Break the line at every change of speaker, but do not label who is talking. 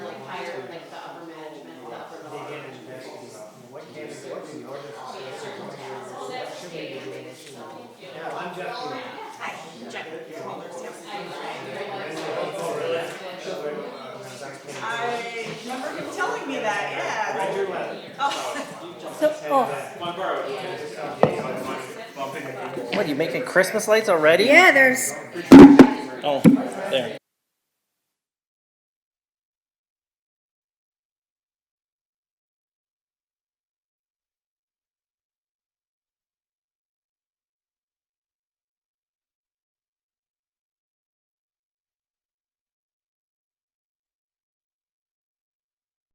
What are you making Christmas lights already?
Yeah, there's
Oh, there.